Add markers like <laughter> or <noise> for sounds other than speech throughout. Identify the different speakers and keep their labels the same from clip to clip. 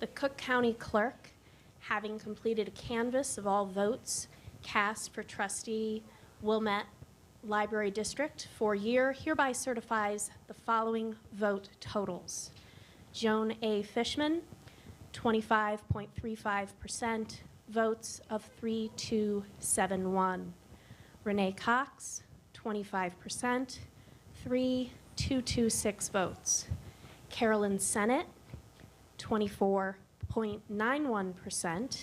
Speaker 1: the Cook County Clerk, having completed a canvass of all votes cast for trustee Wilmette Library District for year, hereby certifies the following vote totals. Joan A. Fishman, 25.35%, votes of 3271. Renee Cox, 25%, 3226 votes. Carolyn Senate, 24.91%,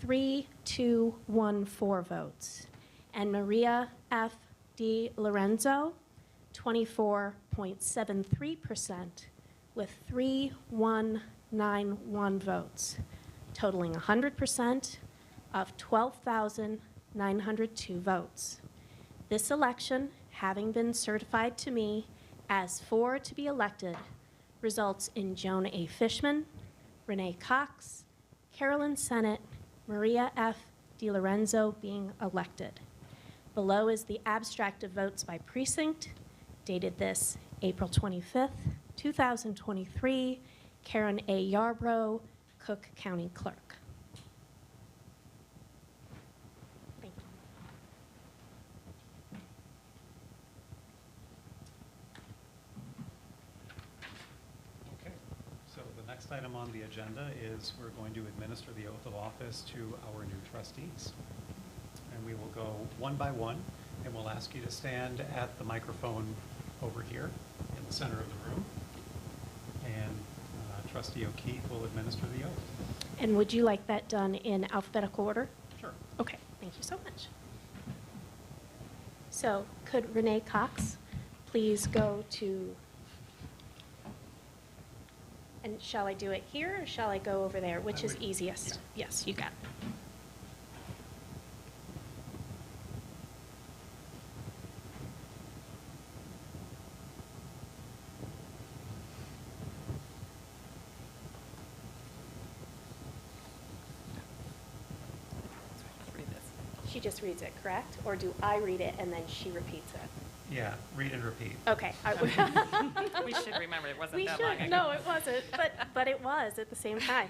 Speaker 1: 3214 votes. And Maria F. D. Lorenzo, 24.73%, with 3191 votes, totaling 100% of 12,902 votes. This election, having been certified to me as four to be elected, results in Joan A. Fishman, Renee Cox, Carolyn Sennett, Maria F. DiLorenzo being elected. Below is the abstract of votes by precinct, dated this April 25th, 2023, Karen A. Yarbrough, Cook County Clerk. Thank you.
Speaker 2: Okay, so the next item on the agenda is we're going to administer the oath of office to our new trustees. And we will go one by one, and we'll ask you to stand at the microphone over here in the center of the room. And uh, trustee O'Keefe will administer the oath.
Speaker 1: And would you like that done in alphabetical order?
Speaker 2: Sure.
Speaker 1: Okay, thank you so much. So could Renee Cox please go to, and shall I do it here or shall I go over there? Which is
Speaker 2: would-
Speaker 1: easiest? Yes, you got it. She just reads it, correct? Or do I read it and then she repeats it?
Speaker 2: Yeah, read and repeat.
Speaker 1: Okay. I-
Speaker 3: Um, <laughs> We should remember it wasn't
Speaker 1: We
Speaker 3: that long ago.
Speaker 1: should, no, it wasn't, but, but it was at the same time.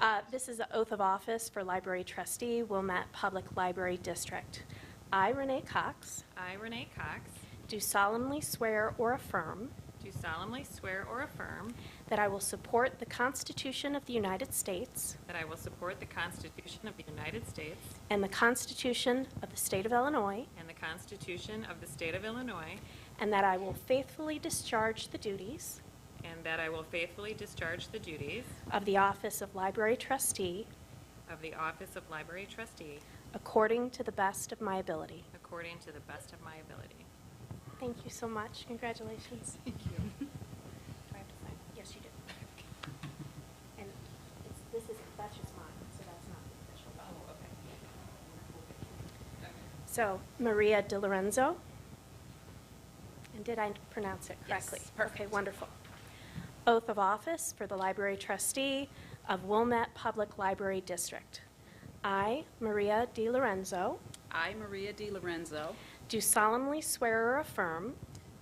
Speaker 1: Uh, This is the oath of office for library trustee, Wilmette Public Library District. I, Renee Cox,
Speaker 3: I, Renee Cox,
Speaker 1: do solemnly swear or affirm
Speaker 3: do solemnly swear or affirm
Speaker 1: that I will support the Constitution of the United States
Speaker 3: that I will support the Constitution of the United States
Speaker 1: and the Constitution of the State of Illinois,
Speaker 3: and the Constitution of the State of Illinois,
Speaker 1: and that I will faithfully discharge the duties
Speaker 3: and that I will faithfully discharge the duties
Speaker 1: of the office of library trustee
Speaker 3: of the Office of Library Trustee
Speaker 1: according to the best of my ability.
Speaker 3: according to the best of my ability.
Speaker 1: Thank you so much. Congratulations. Thank you. Do I have to sign? Yes, you do. And it's, this is, that's just mine, so that's not the official. Oh, okay. So Maria De Lorenzo. And did I pronounce it correctly?
Speaker 3: Yes, perfect.
Speaker 1: Okay, wonderful. Oath of office for the library trustee of Wilmette Public Library District. I, Maria De Lorenzo,
Speaker 4: I, Maria D. Lorenzo,
Speaker 1: do solemnly swear or affirm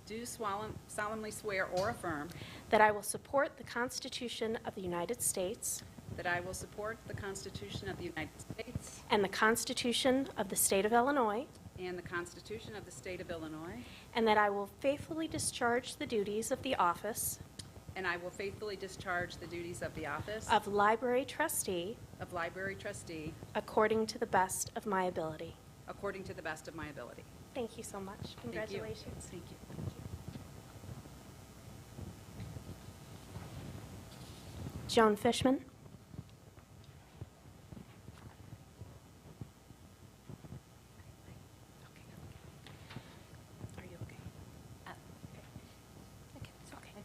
Speaker 4: do swallem- solemnly swear or affirm
Speaker 1: That I will support the Constitution of the United States
Speaker 4: that I will support the Constitution of the United States
Speaker 1: and the Constitution of the State of Illinois,
Speaker 4: and the Constitution of the State of Illinois,
Speaker 1: and that I will faithfully discharge the duties of the office
Speaker 4: and I will faithfully discharge the duties of the office
Speaker 1: of Library Trustee
Speaker 4: of Library Trustee
Speaker 1: according to the best of my ability.
Speaker 4: according to the best of my ability.
Speaker 1: Thank you so much.
Speaker 4: Thank you.
Speaker 1: Congratulations.
Speaker 4: Thank you.
Speaker 1: Joan Fishman. Are you okay? Uh, Okay, it's okay.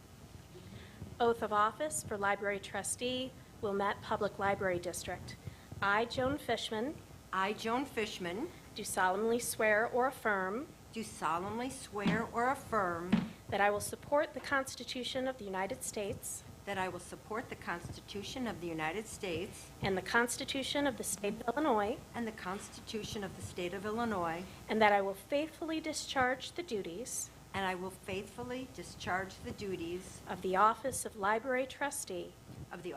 Speaker 1: Oath of office for library trustee, Wilmette Public Library District. I, Joan Fishman,
Speaker 5: I, Joan Fishman,
Speaker 1: do solemnly swear or affirm
Speaker 5: do solemnly swear or affirm
Speaker 1: that I will support the Constitution of the United States
Speaker 5: that I will support the Constitution of the United States
Speaker 1: and the Constitution of the State of Illinois,
Speaker 5: and the Constitution of the State of Illinois,
Speaker 1: and that I will faithfully discharge the duties
Speaker 5: and I will faithfully discharge the duties
Speaker 1: of the office of library trustee
Speaker 5: of the